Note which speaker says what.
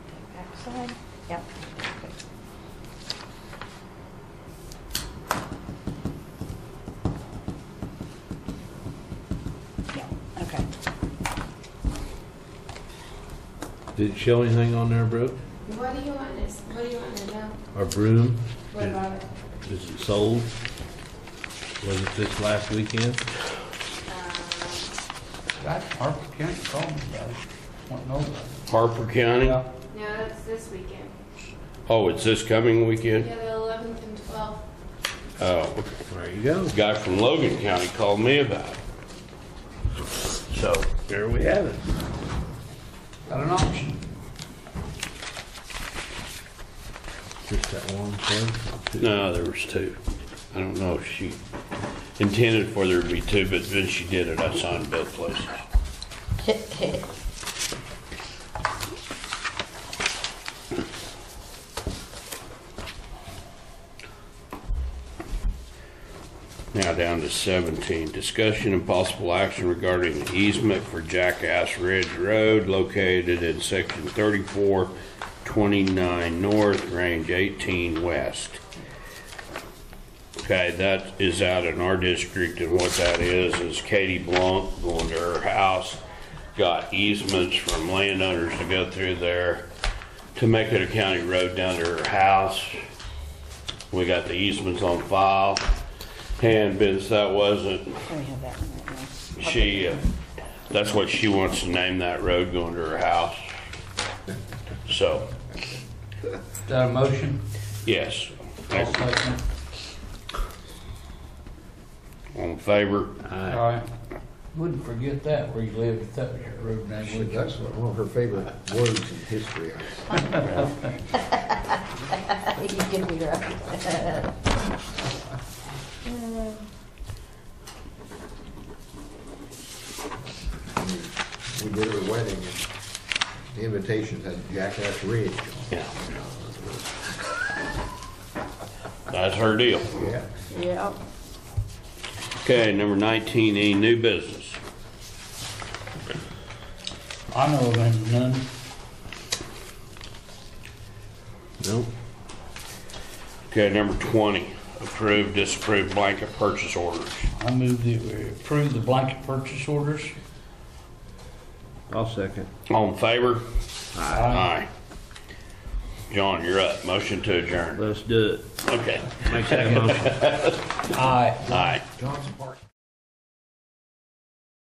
Speaker 1: side? Yep. Yeah, okay.
Speaker 2: Did it show anything on there, Brooke?
Speaker 3: What do you want to, what do you want to know?
Speaker 2: Our broom?
Speaker 3: What about it?
Speaker 2: Is it sold? Was it this last weekend?
Speaker 3: Um,
Speaker 4: That's Harper County called me about it. Want to know about it.
Speaker 5: Harper County?
Speaker 3: No, that's this weekend.
Speaker 5: Oh, it's this coming
Speaker 3: Yeah,
Speaker 5: weekend?
Speaker 3: the 11th and 12th.
Speaker 5: Oh, okay.
Speaker 2: There you go.
Speaker 5: a guy from Logan County called me about it. So, there we have it.
Speaker 4: Got an option.
Speaker 2: Just that one place.
Speaker 5: No, there was two. I don't know if she intended for there to be two, but then she did it. I signed both places. Now down to 17, discussion and possible action regarding the easement for Jackass Ridge Road located in section 3429 North, range 18 West. Okay, that is out in our district, and what that is, is Katie Blunt going to her house, got easements from landowners to go through there to make it a county road down to her house. We got the easements on file, and since that wasn't
Speaker 1: Let me have that one right now.
Speaker 5: she, uh, that's what she wants to name that road going to her house. So,
Speaker 4: Is that a motion?
Speaker 5: yes.
Speaker 4: I'll second.
Speaker 5: All in favor?
Speaker 4: All right. Wouldn't forget that where you lived, if that was your road name, would you?
Speaker 6: That's one of her favorite words in history.
Speaker 1: You give me your own.
Speaker 6: We did her wedding and the invitation had Jackass Ridge.
Speaker 5: Yeah. That's her deal.
Speaker 6: Yeah.
Speaker 1: Yeah.
Speaker 5: Okay, number 19, any new business?
Speaker 4: I know of any, none.
Speaker 2: Nope.
Speaker 5: Okay, number 20, approve, disapprove blanket purchase orders.
Speaker 4: I move that we approve the blanket purchase orders.
Speaker 2: I'll second.
Speaker 5: All in favor?
Speaker 4: Aye.
Speaker 5: John, you're up. Motion to adjourn.
Speaker 2: Let's do it.
Speaker 5: Okay.
Speaker 2: Make that motion.
Speaker 4: Aye.
Speaker 5: Aye.
Speaker 6: Johnson Park.